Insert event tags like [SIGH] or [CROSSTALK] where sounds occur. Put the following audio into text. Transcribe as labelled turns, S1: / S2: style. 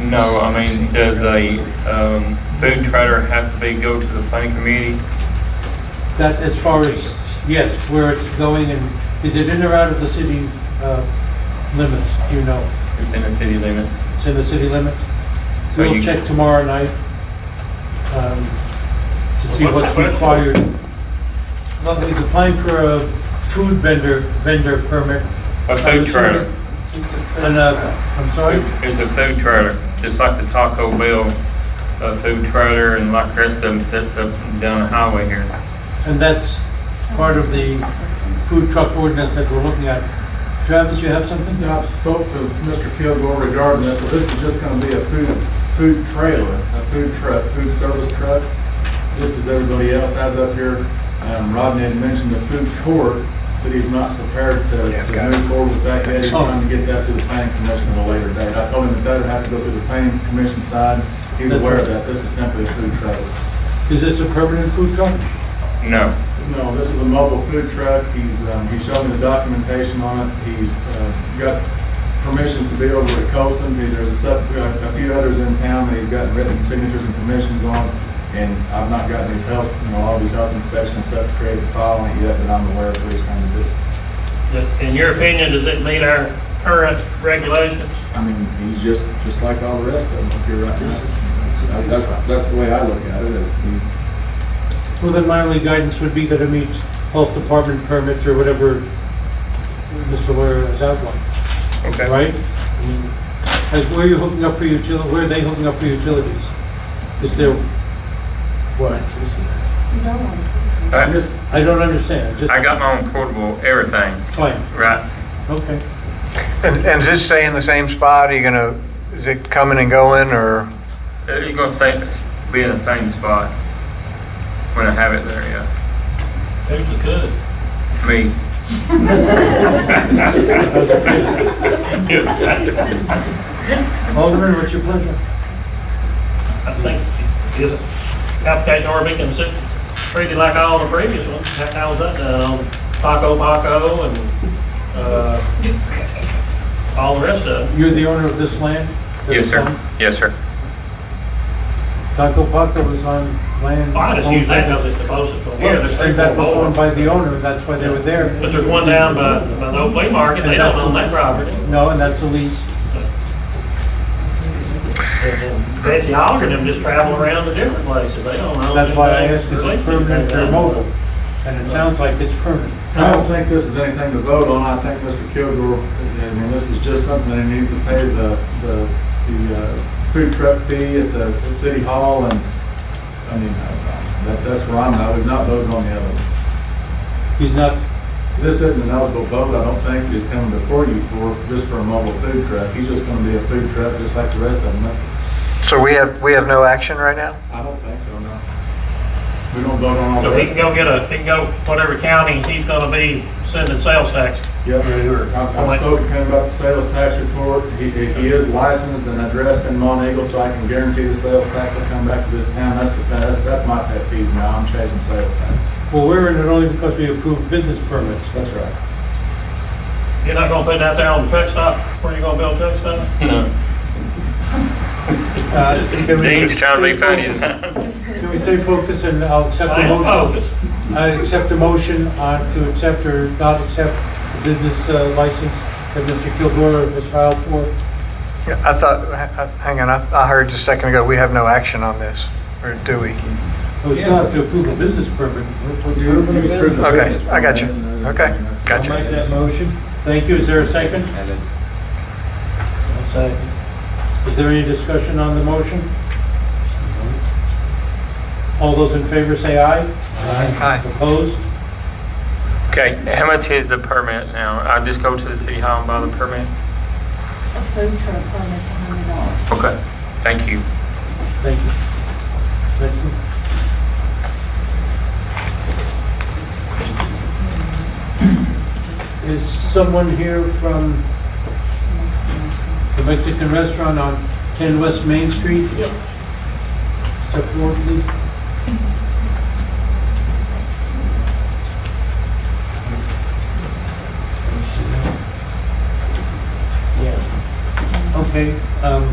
S1: No, I mean, does a um, food trailer have to be go to the planning committee?
S2: That, as far as, yes, where it's going and, is it in or out of the city uh, limits, do you know?
S1: It's in the city limits.
S2: It's in the city limits?
S1: So
S2: We'll
S1: you-
S2: check tomorrow night um, to see what's
S3: What's the question?
S2: required. Well, he's applying for a food vendor, vendor permit.
S1: A
S2: I'm
S1: food trailer.
S2: assuming- And, uh, I'm sorry?
S1: It's a food trailer, just like the Taco Bell uh, food trailer and like the rest of them sets up down the highway here.
S2: And that's part of the food truck ordinance that we're looking at. Travis, you have something?
S4: Yeah, I've spoke to Mr. Kilgore regarding this, so this is just gonna be a food, food trailer, a food truck, food service truck. Just as everybody else has up here, um, Rodney had mentioned the food court, but he's not prepared to, to move forward with that yet. He's
S2: Oh.
S4: trying to get that to the planning commission at a later date. I told him that that'd have to go through the planning commission side. He's
S2: That's
S4: aware
S2: right.
S4: of that. This is simply a food trailer.
S2: Is this a permanent food truck?
S1: No.
S4: No, this is a mobile food truck. He's, um, he's shown me the documentation on it. He's, uh, got permissions to be over at Colston's. He- There's a sub, uh, a a few others in town that he's gotten written signatures and permissions on. And I've not gotten his health, you know, all of his health inspection and stuff created file on it yet, but I'm aware of what he's trying to do.
S3: In your opinion, does it meet our current regulations?
S4: I mean, he's just, just like all the rest of them up here right now. That- That's, that's the way I look at it, is he's,
S2: Well, then my only guidance would be that it meets health department permits or whatever Mr. Lawyer has outlined,
S1: Okay.
S2: right? As where you're hooking up for utilities, where are they hooking up for utilities? Is there, what?
S1: I
S4: just,
S2: I don't understand, I just,
S1: I got my own portable everything,
S2: fine,
S1: right?
S2: okay.
S5: And and does it stay in the same spot? Are you gonna, is it coming and going, or?
S1: You're gonna say, be in the same spot when I have it there, yeah.
S3: Who's the good?
S1: Me.
S2: Alderman, what's your pleasure?
S3: I think is it application already been considered treated like all the previous ones? How how was that done on Paco Paco and uh, all the rest of them?
S2: You're the owner of this land?
S1: Yes, sir. Yes, sir.
S2: Taco Paco was on land.
S3: I just use that because it's supposed to.
S2: Well, and that was owned by the owner, that's why they were there.
S3: But there's one down by, by the old flea market, they don't own that property.
S2: No, and that's a lease.
S3: And then Betsy Alger and them just travel around to different places, they don't own.
S2: That's why I
S3: anything
S2: ask, is it
S3: related to
S2: permanent or
S3: that.
S2: mobile? And it sounds like it's permanent.
S4: I don't think this is anything to vote on. I think Mr. Kilgore, I mean, this is just something that he needs to pay the, the, the uh, food truck fee at the the city hall and, I mean, I- that, that's where I'm, at. I would not vote on the other. one.
S2: He's not,
S4: This isn't an eligible vote, I don't think, is coming before you for, just for a mobile food truck. He's just gonna be a food truck, just like the rest of them.
S5: So we have, we have no action right now?
S4: I don't think so, no. We don't vote on all the
S3: So he can
S4: rest.
S3: go get a, he can go whatever county he's gonna be sending sales tax.
S4: Yep. I've I've spoken to him about the sales tax report. He, he he is licensed and addressed in Mont Eagle, so I can guarantee the sales tax will come back to this town. That's the, that's, that's my pet peeve now. I'm chasing sales tax.
S2: well, we're in it only because we approved business permits.
S4: That's right.
S3: You're not gonna put that there on the truck stop, where you gonna build a truck stop?
S1: No.
S2: Uh, Can we
S1: Dean's trying to be funny.
S2: [LAUGHS] can we stay focused and I'll accept
S3: I oh.
S2: the
S3: am
S2: motion?
S3: focused.
S2: I accept the motion on to accept or not accept the business uh, license that Mr. Kilgore has filed for.
S5: Yeah, I thought, h- h- hang on, I I heard just a second ago, we have no action on this, or do we?
S2: We still have to approve a business permit.
S5: Okay, I got you. Okay, got
S2: uh, I'll
S5: you.
S2: make that motion. Thank you. Is there a second? Second. Is there any discussion on the motion? All those in favor say aye.
S5: Aye.
S2: Opposed?
S1: Okay, how much is the permit now? I just go to the city hall and buy the permit?
S6: A food truck permit's a hundred dollars.
S1: Okay, thank you.
S2: Thank you. Next one. Is someone here from the Mexican restaurant on 10 West Main Street?
S6: Yes.
S2: Step forward, please. Okay, um,